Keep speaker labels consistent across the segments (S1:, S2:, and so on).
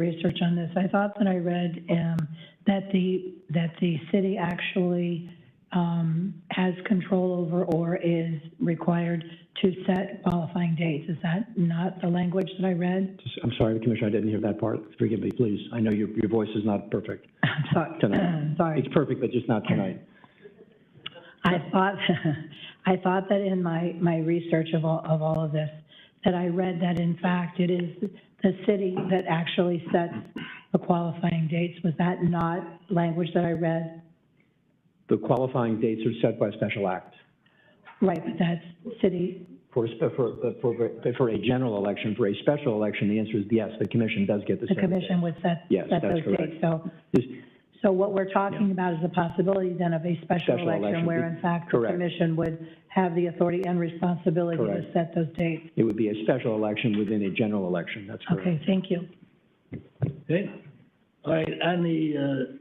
S1: research on this. I thought that I read um, that the, that the city actually um, has control over or is required to set qualifying dates. Is that not the language that I read?
S2: I'm sorry, Commissioner, I didn't hear that part. Forgive me, please. I know your, your voice is not perfect.
S1: I'm sorry,
S2: Tonight.
S1: sorry.
S2: It's perfect, but just not tonight.
S1: I thought, I thought that in my, my research of all, of all of this, that I read that in fact it is the city that actually sets the qualifying dates. Was that not language that I read?
S2: The qualifying dates are set by special act
S1: Right, but that's city,
S2: for, a spe- for, for, for a general election. For a special election, the answer is yes, the commission does get
S1: the
S2: to set the date.
S1: commission would set,
S2: Yes,
S1: set
S2: that's
S1: those dates. So,
S2: This-
S1: so what we're talking about is the possibility then of a special
S2: Special
S1: election
S2: election,
S1: where in fact the
S2: correct.
S1: commission would have the authority and responsibility to
S2: Correct.
S1: set those dates.
S2: It would be a special election within a general election, that's correct.
S1: Okay, thank you.
S3: Okay, all right, on the, uh,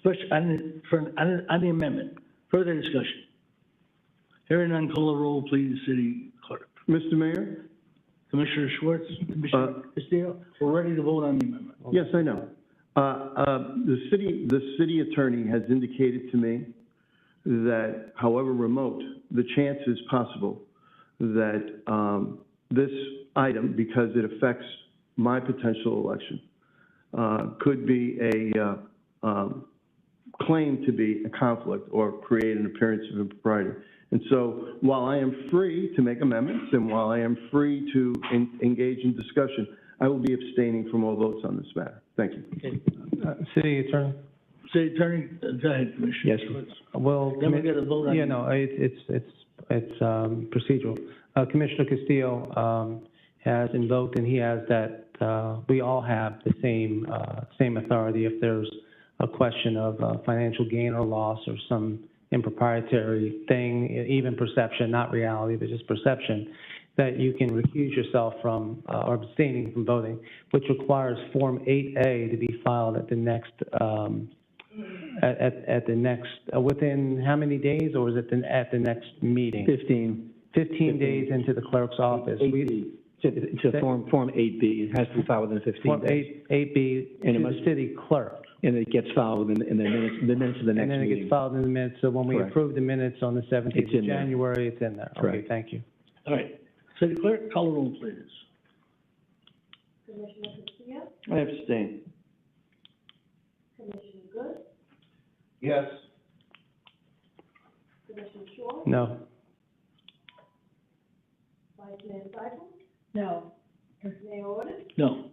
S3: special, on the, for, on, on the amendment, further discussion. Hearing none, call the roll, please, city clerk.
S4: Mr. Mayor?
S3: Commissioner Schwartz, Commissioner Castillo, we're ready to vote on the amendment.
S4: Yes, I know. Uh, uh, The city, the city attorney has indicated to me that however remote, the chance is possible that um, this item, because it affects my potential election, uh, could be a, uh, um, claim to be a conflict or create an appearance of impropriety. And so while I am free to make amendments and while I am free to en- engage in discussion, I will be abstaining from all votes on this matter. Thank you.
S5: Uh, City Attorney,
S3: City attorney, uh, go ahead, Commissioner
S2: Yes.
S3: Schwartz.
S5: well,
S3: Then we got to vote on.
S5: yeah, no, it- it's, it's, it's um, procedural. Uh, Commissioner Castillo um, has invoked, and he has that, uh, we all have the same, uh, same authority if there's a question of uh, financial gain or loss or some improprietary thing, e- even perception, not reality, but just perception, that you can recuse yourself from, uh, or abstaining from voting, which requires Form 8A to be filed at the next, um, at, at, at the next, uh, within how many days, or is it the, at the next meeting?
S2: Fifteen,
S5: Fifteen days into the clerk's office.
S2: eight
S5: We-
S2: B, to, to Form, Form eight B, it has to be filed within fifteen
S5: Form
S2: days.
S5: eight, eight B to
S2: And it
S5: the
S2: must-
S5: city clerk,
S2: And it gets filed in, in the minutes, the minutes of the next
S5: and then it
S2: meeting.
S5: gets filed in the minutes, so when we
S2: Correct.
S5: approve the minutes on the seventeenth
S2: It's
S5: of
S2: in there.
S5: January, it's in there. Okay,
S2: Correct.
S5: thank you.
S3: All right, city clerk, call the roll, please.
S4: I abstain. Commissioner Good? Yes.
S5: No,
S1: No.
S3: No.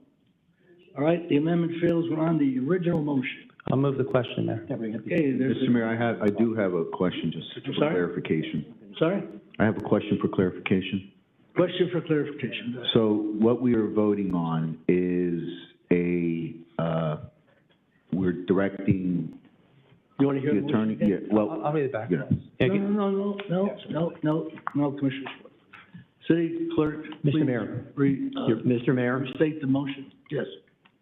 S3: All right, the amendment fails, we're on the original motion.
S5: I'll move the question there.
S3: Okay, there's,
S6: Mr. Mayor, I have, I do have a question just
S3: I'm
S6: for
S3: sorry?
S6: clarification.
S3: sorry,
S6: I have a question for clarification.
S3: question for clarification.
S6: So what we are voting on is a, uh, we're directing
S3: You want to hear the
S6: the
S3: motion
S6: attorney,
S3: again?
S6: yeah,
S5: I'll,
S6: well,
S5: I'll read it back.
S6: you know,
S5: Yeah,
S3: No,
S5: get-
S3: no, no, no, no, no, no, Commissioner Schwartz. City clerk, please
S2: Mr. Mayor,
S3: re, uh,
S2: your- Mr. Mayor?
S3: restate the motion. Yes.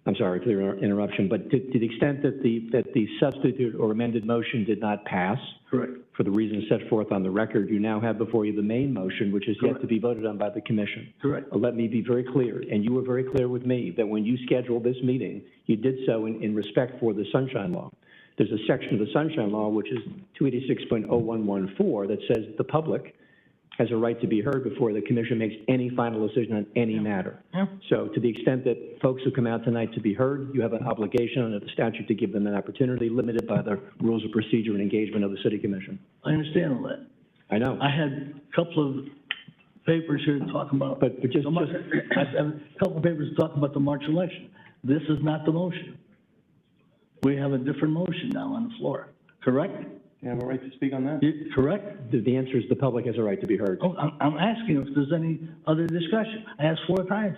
S2: I'm sorry for the inter- interruption, but to, to the extent that the, that the substitute or amended motion did not pass,
S3: Correct.
S2: for the reasons set forth on the record, you now have before you the main motion, which is yet
S3: Correct.
S2: to be voted on by the commission.
S3: Correct.
S2: Let me be very clear, and you were very clear with me, that when you scheduled this meeting, you did so in, in respect for the sunshine law. There's a section of the sunshine law, which is 286.0114, that says the public has a right to be heard before the commission makes any final decision on any matter.
S3: Yeah.
S2: So to the extent that folks who come out tonight to be heard, you have an obligation under the statute to give them an opportunity limited by the rules of procedure and engagement of the city commission.
S3: I understand all that.
S2: I know.
S3: I had a couple of papers here talking about,
S2: But, but just,
S3: the Mar-
S2: just-
S3: I have a couple of papers talking about the March election. This is not the motion. We have a different motion now on the floor, correct?
S4: You have a right to speak on that?
S3: You- Correct?
S2: the, the answer is the public has a right to be heard.
S3: Oh, I'm, I'm asking if there's any other discussion. I asked four times.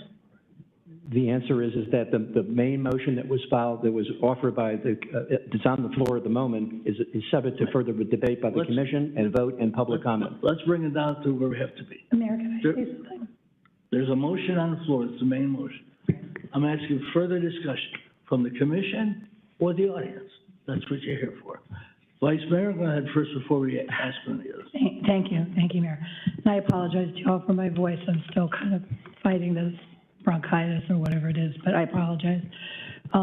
S2: The answer is, is that the, the main motion that was filed, that was offered by the, uh, that's on the floor at the moment, is, is subject to further debate by the
S3: Let's-
S2: commission and vote and public comment.
S3: Let's bring it down to where we have to be.
S1: Mayor, can I
S3: Sure.
S1: say something?
S3: There's a motion on the floor, it's the main motion. I'm asking further discussion from the commission or the audience. That's what you're here for. Vice Mayor, go ahead first before we ask any others.
S1: Thank thank you, thank you, Mayor. And I apologize to you all for my voice, I'm still kind of fighting this bronchitis or whatever it is, but I apologize.